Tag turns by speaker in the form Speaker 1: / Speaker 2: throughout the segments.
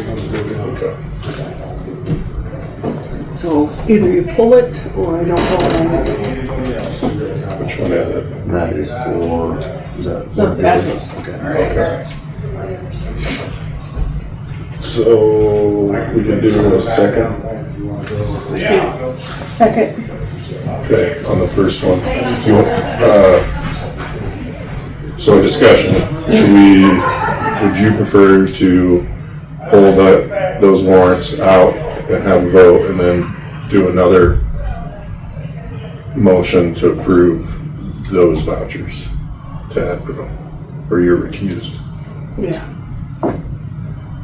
Speaker 1: Okay.
Speaker 2: So either you pull it or I don't vote on it.
Speaker 1: Which one is it?
Speaker 3: That is for, is that?
Speaker 2: That's address.
Speaker 3: Okay.
Speaker 1: Okay. So we can do a second.
Speaker 2: Yeah. Second,
Speaker 1: Okay, on the first one. Do you want- uh, So discussion, should we, would you prefer to pull that, those warrants out and have a vote and then do another motion to approve those vouchers to Advil? Or you're recused?
Speaker 2: yeah.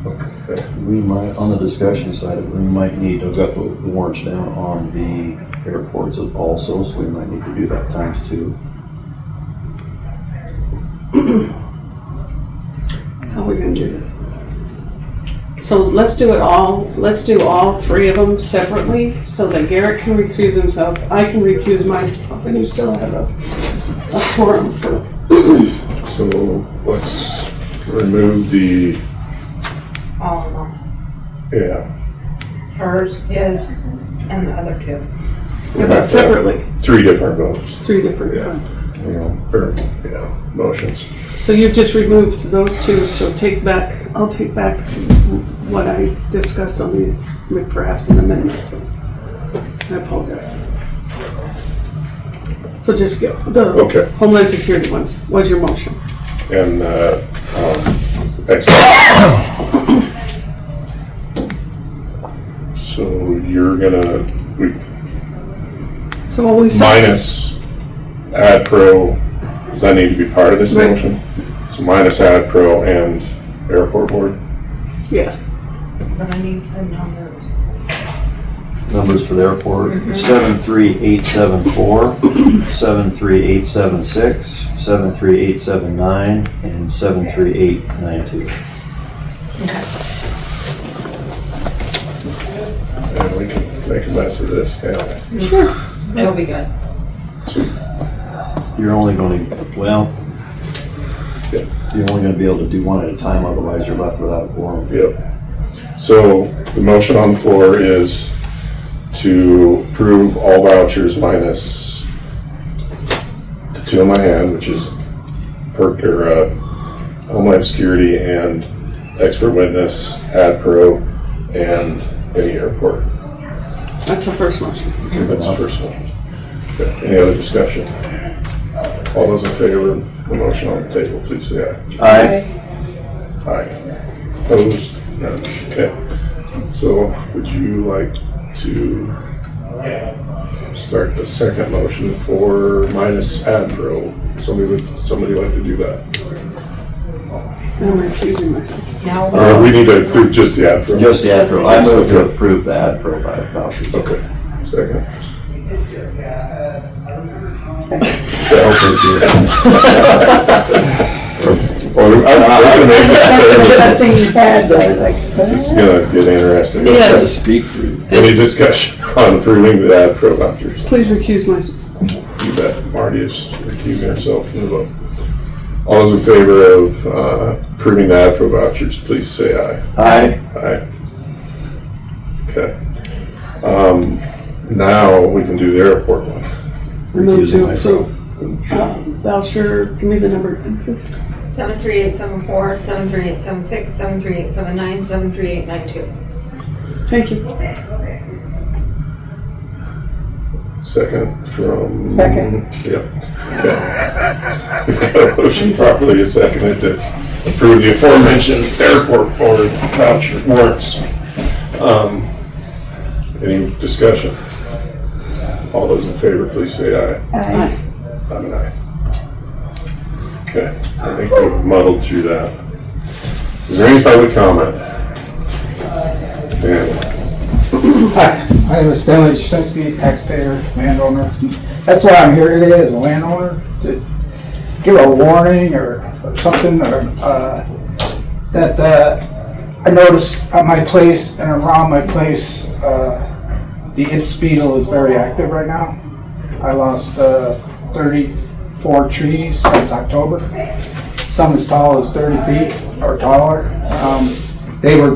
Speaker 1: Okay.
Speaker 3: We might, on the discussion side, we might need, I've got the warrants down on the airports of also, so we might need to do that times two.
Speaker 2: How are we gonna do this? So let's do it all, let's do all three of them separately so that Garrett can recuse himself, I can recuse myself, and you still have a, a forum for,
Speaker 1: So let's remove the,
Speaker 4: all of them.
Speaker 1: yeah,
Speaker 4: Hers, his, and the other two.
Speaker 2: but separately,
Speaker 1: three different votes,
Speaker 2: three different
Speaker 1: Yeah.
Speaker 2: times.
Speaker 1: you know, or, yeah, motions.
Speaker 2: So you've just removed those two, so take back, I'll take back what I discussed on the, with perhaps an amendment, so I apologize. So just go,
Speaker 1: Okay.
Speaker 2: the Homeland Security ones, was your motion.
Speaker 1: and uh, um, Xbox. so you're gonna we,
Speaker 2: So what we said.
Speaker 1: minus ad pro. Does that need to be part of this
Speaker 2: Right.
Speaker 1: motion? So minus ad pro and airport board.
Speaker 2: Yes,
Speaker 4: But I need the numbers.
Speaker 3: Numbers for the airport, seven three eight seven four, seven three eight seven six, seven three eight seven nine, and seven three eight nine two.
Speaker 1: And we can make a mess of this. Yeah.
Speaker 4: It'll be good.
Speaker 3: You're only going to, well, you're only going to be able to do one at a time, otherwise you're left without a quorum.
Speaker 1: Yep. So the motion on the floor is to approve all vouchers minus the two in my hand, which is per, or, uh, Homeland Security and Expert Witness, AdPro, and any airport.
Speaker 2: that's the first motion.
Speaker 1: That's the first one. Okay, Any other discussion? All those in favor of the motion on the table, please say aye.
Speaker 3: Aye.
Speaker 1: Aye. Opposed? None. Okay. So would you like to start the second motion for minus Adro? Somebody would, somebody like to do that?
Speaker 2: I'm recusing myself.
Speaker 4: Now,
Speaker 1: Uh,
Speaker 4: we'll-
Speaker 1: we need to approve just the Adro.
Speaker 3: Just the ad pro, I move to approve the ad pro by vouchers.
Speaker 1: Okay, second.
Speaker 4: second.
Speaker 1: Or, I, I can make that,
Speaker 2: That's a bad,
Speaker 1: it's gonna get interesting.
Speaker 2: Yes.
Speaker 3: Speak for you.
Speaker 1: Any discussion on approving the Adro vouchers?
Speaker 2: Please recuse myself.
Speaker 1: You bet. Marty is recusing herself from the vote. All those in favor of uh, approving the APRO vouchers, please say aye.
Speaker 3: Aye.
Speaker 1: Aye. Okay. Um, Now we can do the airport one.
Speaker 2: Move
Speaker 3: Recusing
Speaker 2: to approve. Uh, Voucher, give me the number, please.
Speaker 4: Seven three eight seven four, seven three eight seven six, seven three eight seven nine, seven three eight nine two.
Speaker 2: Thank you.
Speaker 1: Second from.
Speaker 2: Second.
Speaker 1: Yep. Okay. We've got a motion properly and seconded to approve the aforementioned airport board voucher warrants. Um, Any discussion? All those in favor, please say aye.
Speaker 2: Aye.
Speaker 1: I'm an aye. Okay, I think we've muddled through that. Is there any public comment? Dan,
Speaker 5: Hi, my name is Stanley Jasinski, taxpayer, landowner. That's why I'm here today, as a landowner, to give a warning or or something, or, uh, that, uh, I noticed at my place and around my place, uh, the Ips beetle is very active right now. I lost, uh, thirty-four trees since October, some as tall as thirty feet or taller. Um, They were